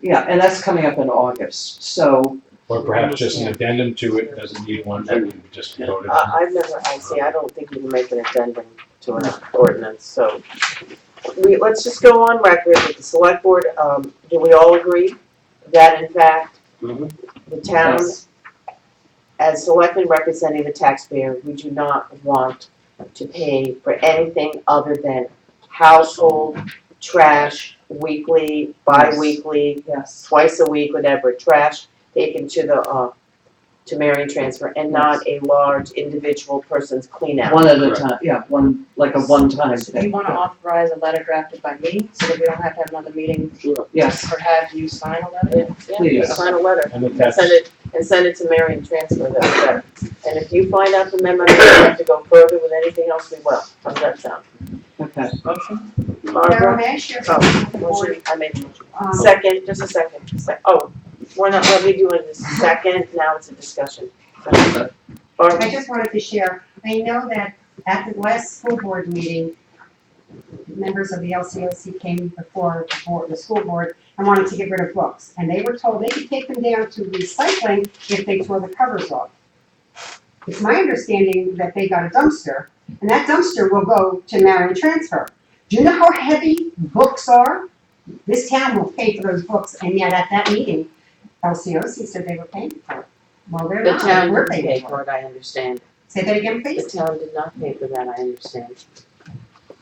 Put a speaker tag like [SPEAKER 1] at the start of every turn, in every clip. [SPEAKER 1] Yeah, and that's coming up in August, so
[SPEAKER 2] Or perhaps just an addendum to it, doesn't need one, that we just voted on.
[SPEAKER 3] I, Uh, I've never, I see, I don't think you can make an addendum to an ordinance, so. We, let's just go on record with the select board, um, do we all agree that in fact,
[SPEAKER 4] Mhm.
[SPEAKER 3] the town, as selectmen representing the taxpayer, we do not want to pay for anything other than household trash, weekly, bi-weekly,
[SPEAKER 1] yes,
[SPEAKER 3] twice a week, whatever, trash taken to the, uh, to Marion Transfer and not a large individual person's clean out.
[SPEAKER 1] one at a
[SPEAKER 4] Correct.
[SPEAKER 1] time, yeah, one, like a one-time
[SPEAKER 5] So do you
[SPEAKER 1] thing,
[SPEAKER 5] wanna authorize a letter drafted by me, so that we don't have to have another meeting,
[SPEAKER 1] yes,
[SPEAKER 5] or have you sign a letter?
[SPEAKER 3] Yeah, yeah,
[SPEAKER 1] please.
[SPEAKER 3] sign a letter
[SPEAKER 2] And if
[SPEAKER 3] and
[SPEAKER 2] that's,
[SPEAKER 3] send it, and send it to Marion Transfer, that's better. And if you find out the memo, you have to go further with anything else, we will. How's that sound?
[SPEAKER 1] Okay,
[SPEAKER 5] Motion?
[SPEAKER 6] Carol,
[SPEAKER 3] Barbara?
[SPEAKER 6] may I share
[SPEAKER 3] Oh,
[SPEAKER 6] something with the board?
[SPEAKER 3] Motion, I made a motion.
[SPEAKER 6] Um,
[SPEAKER 3] Second, just a second, sec, oh, we're not, let me do it this second, now it's a discussion.
[SPEAKER 6] I
[SPEAKER 3] Barbara,
[SPEAKER 6] just wanted to share, I know that at the last school board meeting, members of the LCOC came before the board- the school board and wanted to get rid of books. And they were told they could take them down to recycling if they tore the covers off. It's my understanding that they got a dumpster, and that dumpster will go to Marion Transfer. Do you know how heavy books are? This town will pay for those books, and yet at that meeting, LCOC said they were paying for it. Well, they're
[SPEAKER 3] the
[SPEAKER 6] not,
[SPEAKER 3] town
[SPEAKER 6] we're
[SPEAKER 3] did
[SPEAKER 6] paying
[SPEAKER 3] pay
[SPEAKER 6] for it.
[SPEAKER 3] for it, I understand.
[SPEAKER 6] Say that again,
[SPEAKER 3] The
[SPEAKER 6] please.
[SPEAKER 3] town did not pay for that, I understand.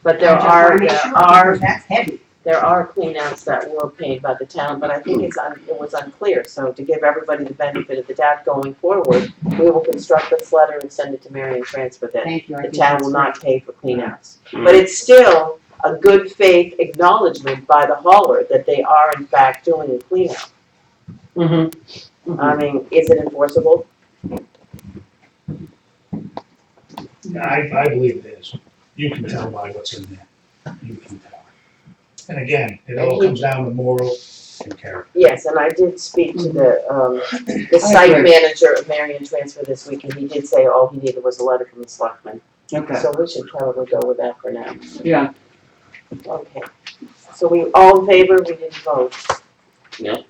[SPEAKER 3] But there
[SPEAKER 6] I just
[SPEAKER 3] are,
[SPEAKER 6] wanna make
[SPEAKER 3] there
[SPEAKER 6] sure,
[SPEAKER 3] are,
[SPEAKER 6] because That's heavy.
[SPEAKER 3] there are cleanouts that were paid by the town, but I think it's, un- it was unclear. So to give everybody the benefit of the doubt going forward, we will construct this letter and send it to Marion Transfer that
[SPEAKER 6] Thank you. I
[SPEAKER 3] the
[SPEAKER 6] think
[SPEAKER 3] town
[SPEAKER 6] that's
[SPEAKER 3] will not pay for cleanouts.
[SPEAKER 1] Mm-hmm.
[SPEAKER 4] Mm.
[SPEAKER 3] But it's still a good faith acknowledgement by the hauler that they are in fact doing a cleanout.
[SPEAKER 1] Mhm.
[SPEAKER 3] I mean, is it enforceable?
[SPEAKER 7] I, I believe it is. You can tell by what's in there. You can tell. And again, it all comes down to moral and character.
[SPEAKER 3] Yes, and I did speak to the, um, the
[SPEAKER 1] Mm-hmm. I
[SPEAKER 3] site
[SPEAKER 1] agree.
[SPEAKER 3] manager of Marion Transfer this week, and he did say all he needed was a letter from the selectman.
[SPEAKER 1] okay,
[SPEAKER 3] So we should probably go with that for now.
[SPEAKER 1] yeah,
[SPEAKER 3] Okay. So we, all in favor, we didn't vote?
[SPEAKER 4] No.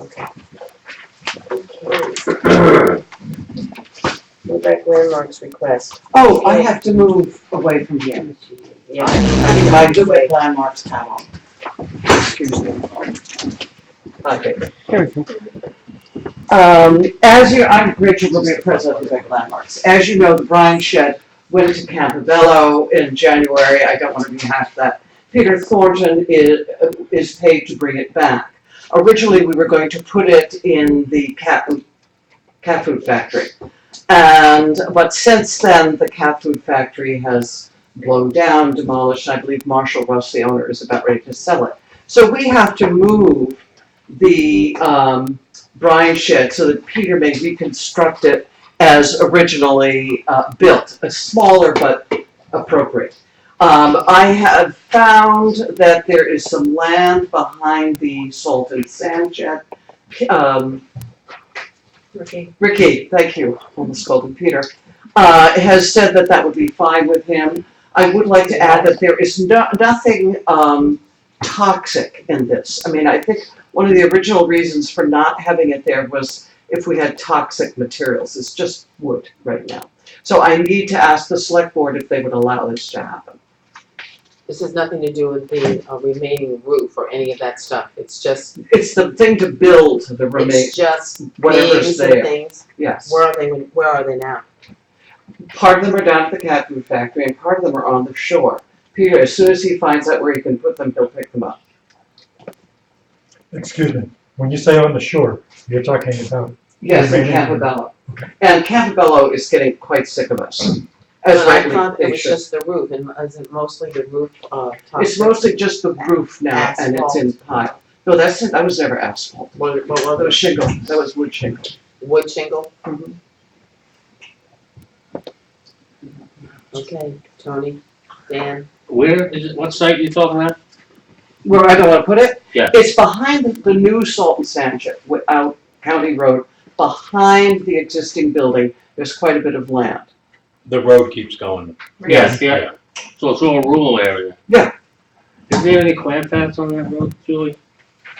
[SPEAKER 3] Okay. Okay. Quebec landmarks request.
[SPEAKER 1] oh, I have to move away from here,
[SPEAKER 3] Yeah.
[SPEAKER 1] I mean, I do with landmarks panel. Excuse me. Okay. Um, as you, I'm Rachel Lemire, president of Quebec Landmarks. As you know, the Bryan Shed went to Campobello in January. I don't want to rehash that. Peter Thornton is, is paid to bring it back. Originally, we were going to put it in the cat, cat food factory. And, but since then, the cat food factory has blown down, demolished, and I believe Marshall Russ, the owner, is about ready to sell it. So we have to move the, um, brine shed so that Peter may reconstruct it as originally uh, built, a smaller but appropriate. Um, I have found that there is some land behind the salt and sand shed. Um,
[SPEAKER 5] Ricky?
[SPEAKER 1] Ricky, thank you, almost called him Peter, uh, has said that that would be fine with him. I would like to add that there is no, nothing um, toxic in this. I mean, I think one of the original reasons for not having it there was if we had toxic materials, it's just wood right now. So I need to ask the select board if they would allow this to happen.
[SPEAKER 3] This has nothing to do with the uh, remaining roof or any of that stuff. It's just,
[SPEAKER 1] It's the thing to build the remain,
[SPEAKER 3] it's just
[SPEAKER 1] whatever's
[SPEAKER 3] beams and
[SPEAKER 1] there,
[SPEAKER 3] things.
[SPEAKER 1] yes.
[SPEAKER 3] Where are they, where are they now?
[SPEAKER 1] Part of them are down at the cat food factory and part of them are on the shore. Peter, as soon as he finds out where he can put them, he'll pick them up.
[SPEAKER 8] Excuse me, when you say on the shore, you're talking about,
[SPEAKER 1] Yes, in
[SPEAKER 8] Remaining.
[SPEAKER 1] Campobello. And Campobello is getting quite sick of us, as
[SPEAKER 3] But I
[SPEAKER 1] rightly
[SPEAKER 3] thought it
[SPEAKER 1] they
[SPEAKER 3] was
[SPEAKER 1] should.
[SPEAKER 3] just the roof, and isn't mostly the roof, uh,
[SPEAKER 1] It's
[SPEAKER 3] toxic?
[SPEAKER 1] mostly just the roof now and it's in pile. No, that's, it. that was never asphalt.
[SPEAKER 3] What, what
[SPEAKER 1] Oh, That
[SPEAKER 3] were
[SPEAKER 1] was shingle, that was wood shingle.
[SPEAKER 3] the, wood shingle?
[SPEAKER 1] Mhm.
[SPEAKER 3] Okay, Tony, Dan,
[SPEAKER 4] Where is it, what site you talking about?
[SPEAKER 1] Where I don't wanna put it?
[SPEAKER 4] Yeah.
[SPEAKER 1] It's behind the, the new Salt and Sand Shed, wi- out County Road, behind the existing building, there's quite a bit of land.
[SPEAKER 2] the road keeps going.
[SPEAKER 4] Yes, yeah. So it's all rural area.
[SPEAKER 1] Yeah.
[SPEAKER 4] Is there any clam paths on that road, Julie?